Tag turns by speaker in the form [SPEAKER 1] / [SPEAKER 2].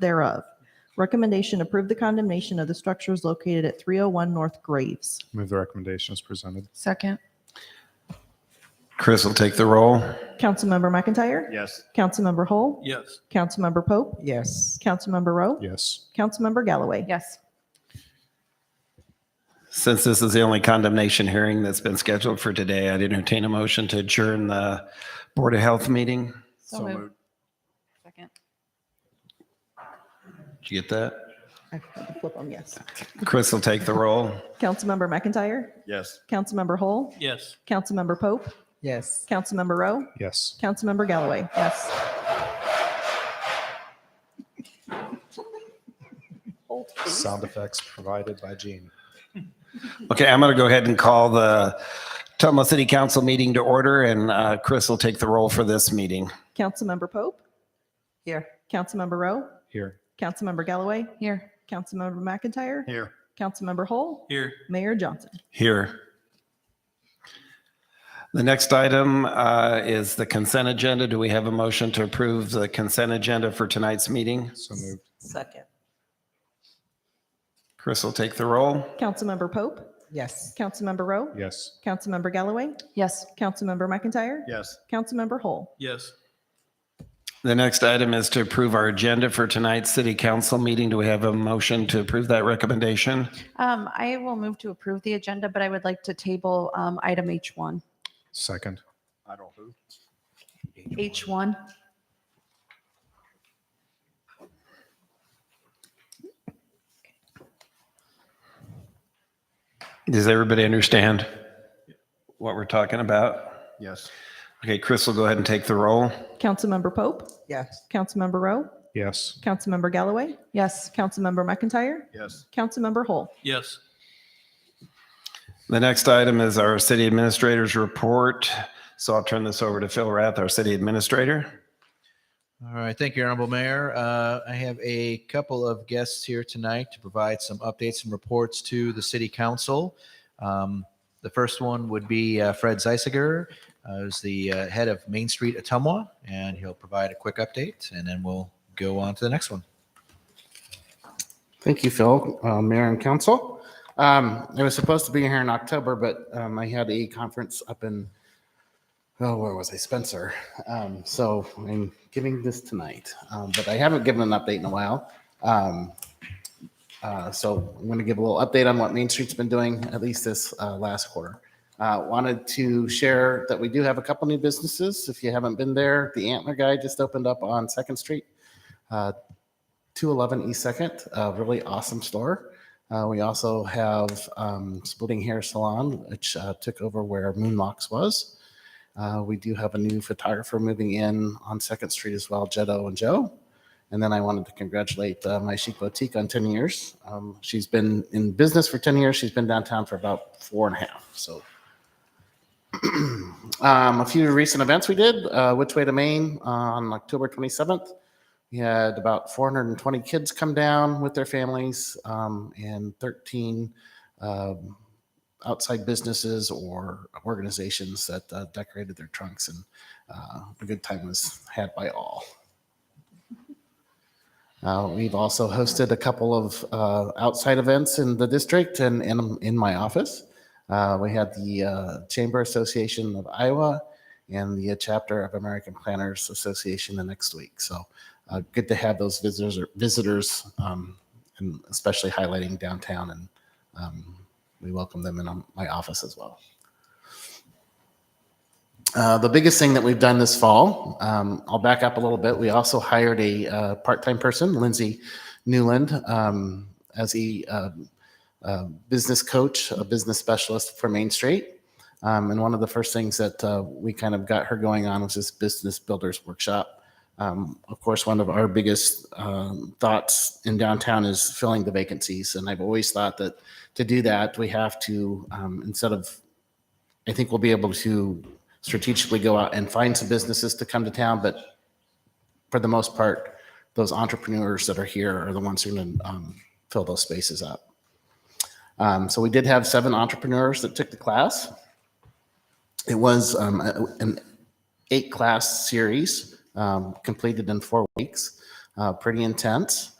[SPEAKER 1] thereof. Recommendation, approve the condemnation of the structures located at 301 North Graves.
[SPEAKER 2] Move the recommendation as presented.
[SPEAKER 3] Second.
[SPEAKER 4] Chris will take the roll.
[SPEAKER 1] Councilmember McIntyre?
[SPEAKER 2] Yes.
[SPEAKER 1] Councilmember Hull?
[SPEAKER 4] Yes.
[SPEAKER 1] Councilmember Pope?
[SPEAKER 3] Yes.
[SPEAKER 1] Councilmember Rowe?
[SPEAKER 2] Yes.
[SPEAKER 1] Councilmember Galloway?
[SPEAKER 3] Yes.
[SPEAKER 4] Since this is the only condemnation hearing that's been scheduled for today, I'd entertain a motion to adjourn the Board of Health meeting.
[SPEAKER 3] So moved. Second.
[SPEAKER 4] Did you get that?
[SPEAKER 1] I had to flip them, yes.
[SPEAKER 4] Chris will take the roll.
[SPEAKER 1] Councilmember McIntyre?
[SPEAKER 2] Yes.
[SPEAKER 1] Councilmember Hull? Yes. Councilmember Pope?
[SPEAKER 3] Yes.
[SPEAKER 1] Councilmember Rowe?
[SPEAKER 2] Yes.
[SPEAKER 1] Councilmember Galloway?
[SPEAKER 3] Yes.
[SPEAKER 2] Sound effects provided by Gene.
[SPEAKER 4] Okay, I'm going to go ahead and call the Tumla City Council meeting to order, and uh, Chris will take the roll for this meeting.
[SPEAKER 1] Councilmember Pope?
[SPEAKER 3] Here.
[SPEAKER 1] Councilmember Rowe?
[SPEAKER 2] Here.
[SPEAKER 1] Councilmember Galloway?
[SPEAKER 3] Here.
[SPEAKER 1] Councilmember McIntyre?
[SPEAKER 2] Here.
[SPEAKER 1] Councilmember Hull?
[SPEAKER 4] Here.
[SPEAKER 1] Mayor Johnson?
[SPEAKER 4] Here. The next item uh, is the consent agenda. Do we have a motion to approve the consent agenda for tonight's meeting?
[SPEAKER 2] So moved.
[SPEAKER 1] Second.
[SPEAKER 4] Chris will take the roll.
[SPEAKER 1] Councilmember Pope?
[SPEAKER 3] Yes.
[SPEAKER 1] Councilmember Rowe?
[SPEAKER 2] Yes.
[SPEAKER 1] Councilmember Galloway?
[SPEAKER 3] Yes.
[SPEAKER 1] Councilmember McIntyre?
[SPEAKER 2] Yes.
[SPEAKER 1] Councilmember Hull?
[SPEAKER 5] Yes,
[SPEAKER 4] The next item is to approve our agenda for tonight's city council meeting. Do we have a motion to approve that recommendation?
[SPEAKER 6] Um, I will move to approve the agenda, but I would like to table, um, item H1.
[SPEAKER 2] Second.
[SPEAKER 6] H1,
[SPEAKER 4] Does everybody understand what we're talking about?
[SPEAKER 2] Yes.
[SPEAKER 4] Okay, Chris will go ahead and take the roll.
[SPEAKER 1] Councilmember Pope?
[SPEAKER 3] Yes.
[SPEAKER 1] Councilmember Rowe?
[SPEAKER 2] Yes.
[SPEAKER 1] Councilmember Galloway?
[SPEAKER 6] yes.
[SPEAKER 1] Councilmember McIntyre?
[SPEAKER 2] Yes.
[SPEAKER 1] Councilmember Hull?
[SPEAKER 5] yes,
[SPEAKER 4] The next item is our city administrator's report. So I'll turn this over to Phil Rath, our city administrator.
[SPEAKER 7] All right, thank you, Honorable Mayor. Uh, I have a couple of guests here tonight to provide some updates and reports to the City Council. Um, the first one would be uh, Fred Zeisiger, uh, who's the uh, head of Main Street Atumwa, and he'll provide a quick update, and then we'll go on to the next one.
[SPEAKER 8] Thank you, Phil, uh, Mayor and Council. Um, I was supposed to be here in October, but um, I had a conference up in, oh, where was I? Spencer. Um, so I'm giving this tonight, um, but I haven't given an update in a while. Um, uh, so I'm going to give a little update on what Main Street's been doing, at least this uh, last quarter. Uh, wanted to share that we do have a couple new businesses. If you haven't been there, the Antler Guy just opened up on Second Street. Uh, 211 East Second, a really awesome store. Uh, we also have um, Splitting Hair Salon, which uh, took over where Moonlocks was. Uh, we do have a new photographer moving in on Second Street as well, Jetto and Joe. And then I wanted to congratulate uh, my chic boutique on 10 years. Um, she's been in business for 10 years. She's been downtown for about four and a half. So um, a few recent events we did, uh, Which Way to Maine on October 27th. We had about 420 kids come down with their families um, and 13 um, outside businesses or organizations that uh, decorated their trunks, and uh, a good time was had by all. Uh, we've also hosted a couple of uh, outside events in the district and, and in my office. Uh, we had the uh, Chamber Association of Iowa and the uh, chapter of American Planners Association the next week. So uh, good to have those visitors visitors um, and especially highlighting downtown and um, we welcome them in um, my office as well uh, the biggest thing that we've done this fall um, i'll back up a little bit we also hired a uh, part-time person lindsay newland um, as a um, uh, business coach a business specialist for main street um, and one of the first things that uh, we kind of got her going on was this business builders workshop um, of course, one of our biggest um, thoughts in downtown is filling the vacancies. And I've always thought that to do that, we have to, um, instead of, I think we'll be able to strategically go out and find some businesses to come to town, but for the most part, those entrepreneurs that are here are the ones who can um, fill those spaces up. Um, so we did have seven entrepreneurs that took the class. It was um, a- an eight class series um, completed in four weeks. uh, pretty intense.